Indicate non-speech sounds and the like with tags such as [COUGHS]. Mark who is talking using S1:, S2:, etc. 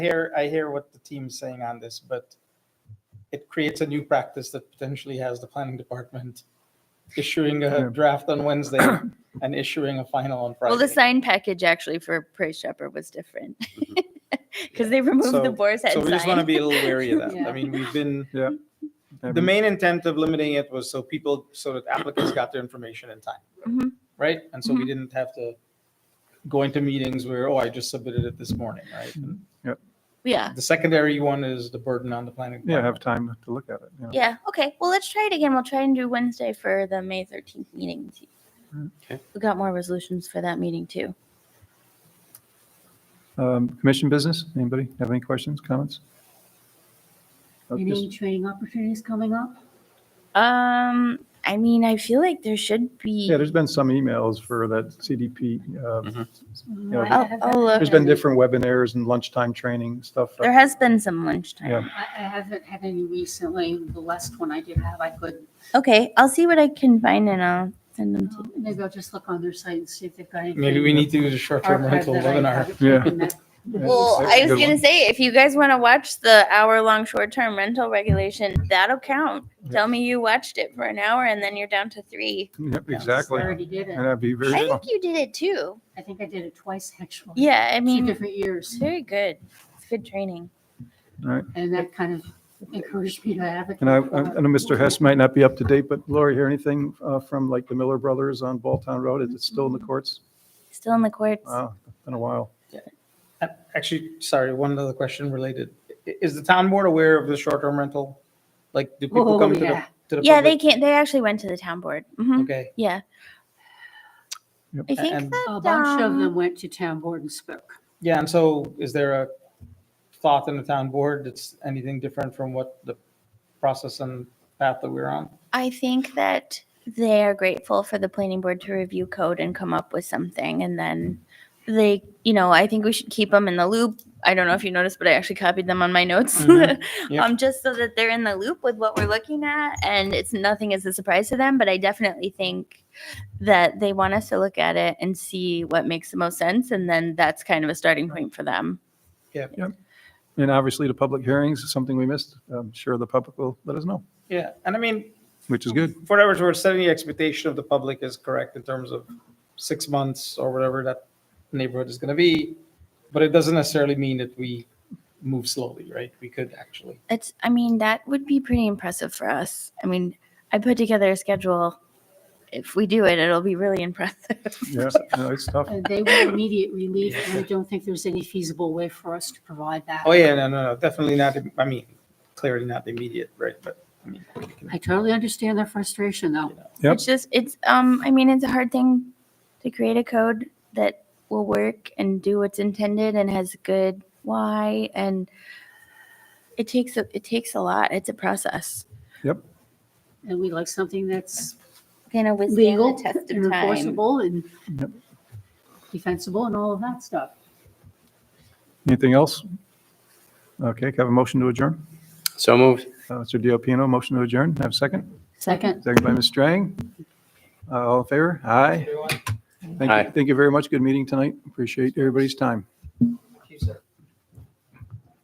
S1: hear, I hear what the team's saying on this, but it creates a new practice that potentially has the planning department issuing
S2: Yeah.
S1: a draft on Wednesday [COUGHS] and issuing a final on Friday. Mm-hmm.
S3: Well, the sign package actually for Praise Shepherd was different [LAUGHS] because they removed the
S1: So-
S3: boar's head
S1: So we just want to
S3: sign.
S1: be a little
S3: [LAUGHS]
S1: wary of that.
S4: Yeah.
S1: I mean, we've been, the
S2: Every-
S1: main intent of limiting it was so people, so that applicants got their information in time.
S3: Mhm.
S1: Right? And so we didn't have to go into meetings where, oh, I just submitted it this morning, right? And
S3: Yeah.
S1: The secondary one is the burden on the planning.
S2: Yeah, have
S1: department.
S2: time to look at it. you know.
S3: Yeah. Okay. Well, let's try it again. We'll try and do Wednesday for the May 13th meeting.
S5: Okay.
S3: We got more resolutions for that meeting too.
S2: Um, Commission business, anybody have any questions, comments? Uh,
S4: Any
S2: just-
S4: training opportunities coming up?
S3: Um, I mean, I feel like there should be.
S2: Yeah, there's been some emails for that CDP. uh,
S5: Mhm.
S4: Mm,
S2: Yeah,
S4: I
S3: I'll-
S4: haven't-
S3: I'll look.
S2: There's been different webinars and lunchtime training, stuff.
S3: There has been some lunchtime.
S2: Yeah.
S4: I I haven't had any recently. The last one I did have, I could,
S3: Okay. I'll see what I can find and I'll send them to you.
S4: maybe I'll just look on their site and see if they've got anything.
S1: Maybe we need to do the short-term
S4: archived
S1: rental
S4: that I
S1: webinar.
S4: haven't
S2: Yeah.
S4: taken that-
S2: Yeah,
S3: Well,
S2: that's
S3: I
S2: a
S3: was
S2: good
S3: gonna
S2: one.
S3: say, if you guys want to watch the hour-long short-term rental regulation, that'll count. Tell me you watched it for an hour and then you're down to three.
S2: Yep,
S1: Yeah.
S4: I
S2: exactly.
S4: already did
S2: And
S4: it.
S2: that'd be very
S3: I
S2: fun.
S3: think you did it too.
S4: I think I did it twice, actually.
S3: Yeah, I
S4: Two
S3: mean,
S4: different
S3: it's
S4: years.
S3: very good. It's good training.
S4: And that kind of encouraged me to advocate.
S2: And I, I
S4: for it.
S2: know Mr. Hess might not be up to date, but Lori, hear anything uh, from like the Miller Brothers on Balltown Road? Is it still
S3: Mm-hmm.
S2: in the courts?
S3: Still in the courts.
S2: Wow, been a while.
S1: Uh, Actually, sorry, one other question related. I- Is the town board aware of the short-term rental? Like, do people
S4: Oh,
S1: come to the,
S4: yeah.
S1: to the?
S3: Yeah, they
S1: public?
S3: can't, they actually went to the town board. Mhm.
S1: Okay,
S3: Yeah.
S2: Yep.
S3: I think
S1: And-
S3: that,
S4: A bunch of
S3: um,
S4: them went to town board and spoke.
S1: yeah, and so is there a thought in the town board that's anything different from what the process and path that we're on?
S3: I think that they are grateful for the planning board to review code and come up with something. And then they, you know, I think we should keep them in the loop. I don't know if you noticed, but I actually copied them on my notes.
S1: Mhm.
S3: [LAUGHS]
S1: Yep.
S3: um, just so that they're in the loop with what we're looking at. And it's nothing is a surprise to them. But I definitely think that they want us to look at it and see what makes the most sense. And then that's kind of a starting point for them.
S2: And obviously the public hearings is something we missed. I'm sure the public will let us know,
S1: Yeah, and I mean,
S2: which is good.
S1: for whatever it's worth, setting the expectation of the public is correct in terms of six months or whatever that neighborhood is going to be. But it doesn't necessarily mean that we move slowly, right? We could actually.
S3: It's, I mean, that would be pretty impressive for us. I mean, I put together a schedule. If we do it, it'll be really [LAUGHS] impressive.
S2: Yeah, no, it's tough.
S4: And They want immediate relief, and I don't think there's any feasible way for us to provide that.
S1: Oh, yeah, no, no, no, definitely not. im- I mean, clearly not immediate, right? But I mean, we can-
S4: I totally understand their frustration, though.
S2: Yep.
S3: It's just, it's, um, I mean, it's a hard thing to create a code that will work and do what's intended and has a good why and it takes, a it takes a lot. It's a process.
S4: And we like something that's
S3: Gonna withstand
S4: legal
S3: the test
S4: and
S3: of time.
S4: enforceable and
S2: Yep.
S4: defensible and all of that stuff.
S2: Anything else? Okay, can I have a motion to adjourn?
S5: So moved.
S2: Uh, Mr. Diopino, motion to adjourn. Have a second?
S4: Second,
S2: Second by Ms. Strang. Uh, All in favor? Aye. Thank
S5: Aye.
S2: you, thank you very much. Good meeting tonight. Appreciate everybody's time.